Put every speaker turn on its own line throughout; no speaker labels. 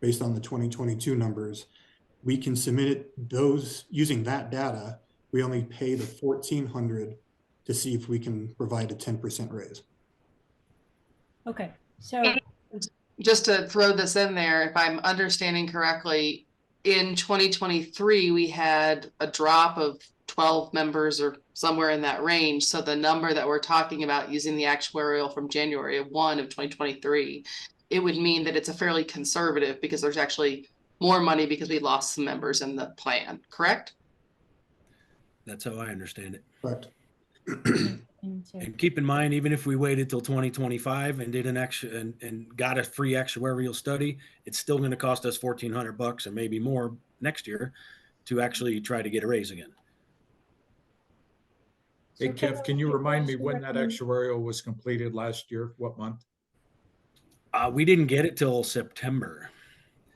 based on the 2022 numbers, we can submit it, those, using that data, we only pay the 1,400 to see if we can provide a 10% raise.
Okay, so,
Just to throw this in there, if I'm understanding correctly, in twenty twenty-three, we had a drop of twelve members or somewhere in that range. So the number that we're talking about using the actuarial from January of one of twenty twenty-three, it would mean that it's a fairly conservative because there's actually more money because we lost some members in the plan, correct?
That's how I understand it.
Correct?
into-
And keep in mind, even if we waited till 2025 and did an extra and, and got a free actuarial study, it's still going to cost us 1,400 bucks and maybe more next year to actually try to get a raise again.
Hey,
So
Kev, can you
what
remind me
is the
when that
recommend-
actuarial was completed last year? What month?
Uh, we didn't get it till September.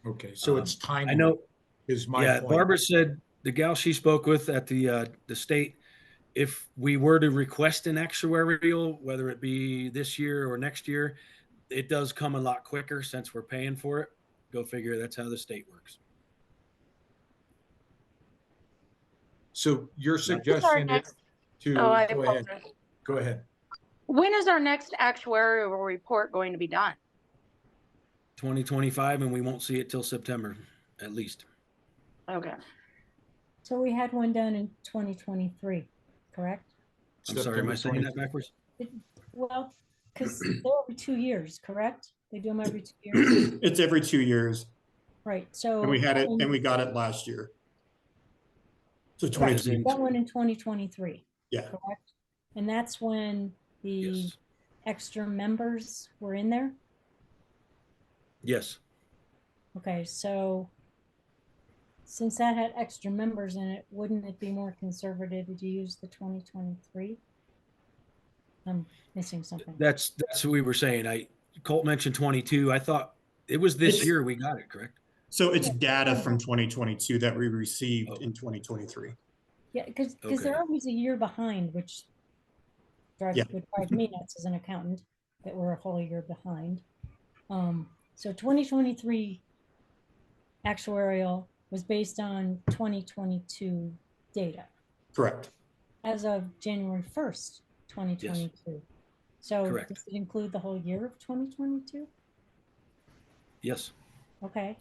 Okay, so it's time.
Um, I know,
Is Mm-hmm. my
yeah,
point.
Barbara said, the gal she spoke with at the, uh, the state, if we were to request an actuarial, whether it be this year or next year, it does come a lot quicker since we're paying for it. Go figure, that's how the state works.
So your suggestion is
next-
to,
Oh, I
go ahead,
apologize.
go ahead.
When is our next actuarial report going to be done?
2025 and we won't see it till September at least.
Okay.
So we had one done in 2023, correct?
I'm sorry, am I saying that
September
backwards?
Well, because they're every two years, correct? They do them every two years,
It's every two years,
right, so.
and we had it,
that
and
one-
we got it last year. So
right,
2022.
That one in 2023.
Yeah.
Correct? And that's when the
Yes.
extra members were in there?
Yes.
Okay, so since that had extra members in it, wouldn't it be more conservative to use the twenty twenty-three? I'm missing something.
That's, that's what we were saying. I, Colt mentioned 22. I thought it was this
It's-
year we got it, correct?
So it's data from 2022 that we
Oh.
received in 2023.
Yeah, because, because they're
Okay.
always a year behind, which drives,
Yeah.
would drive me nuts as an accountant, that we're a whole year behind. Um, so twenty twenty-three actuarial was based on twenty twenty-two data.
Correct.
As of January first, twenty twenty-two. So
Correct.
does it include the whole year of twenty twenty-two?
Yes.
Okay.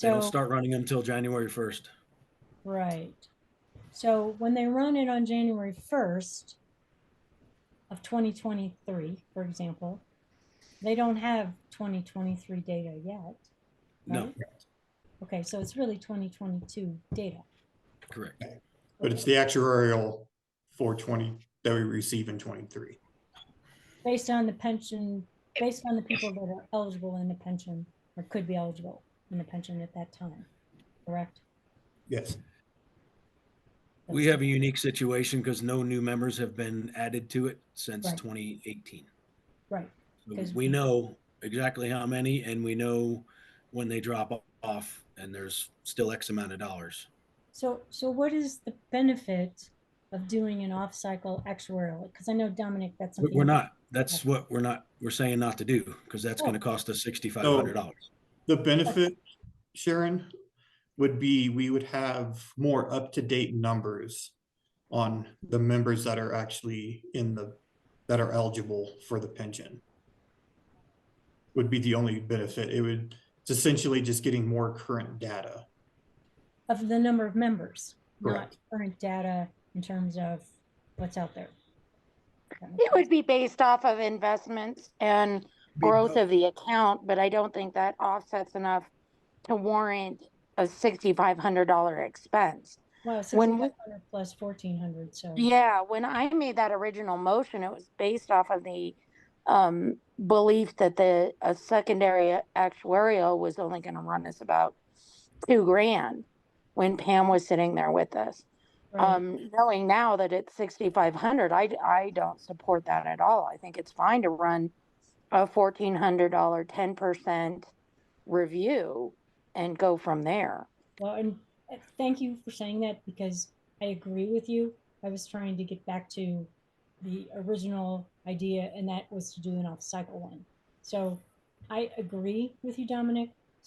They don't
So-
start running until January 1st.
Right. So when they run it on January first of twenty twenty-three, for example, they don't have twenty twenty-three data yet.
No,
right? Okay, so it's really twenty twenty-two data.
correct.
But it's the actuarial for 20 that we receive in 23.
Based on the pension, based on the people that are eligible in the pension or could be eligible in the pension at that time, correct?
Yes.
We have a unique situation because no new members have been added to it since
Right.
2018.
Right,
So
'Cause
We
we-
know exactly how many and we know when they drop off and there's still X amount of dollars.
so, so what is the benefit of doing an off-cycle actuarial? Because I know Dominic, that's.
But
something
We're
you-
not, that's what we're not, we're saying not to do, because that's
Sure.
gonna cost us sixty-five hundred dollars.
The benefit, Sharon, would be we would have more up-to-date numbers on the members that are actually in the, that are eligible for the pension. Would be the only benefit. It would, it's essentially just getting more current data.
of the number of members, not
Correct.
current data in terms of what's out there.
It would be based off of investments and growth of the account, but I don't think that offsets enough to warrant a sixty-five hundred dollar expense.
Wow,
when we-
sixty-five hundred plus fourteen hundred, so.
Yeah, when I made that original motion, it was based off of the um belief that the a secondary actuarial was only gonna run us about two grand when Pam was sitting there with us.
right.
Um, knowing now that it's sixty-five hundred, I, d- I don't support that at all. I think it's fine to run a fourteen hundred dollar, ten percent review and go from there.
Well, and uh, thank you for saying that because I agree with you. I was trying to get back to the original idea, and that was to do an off-cycle one. So I agree with you, Dominic.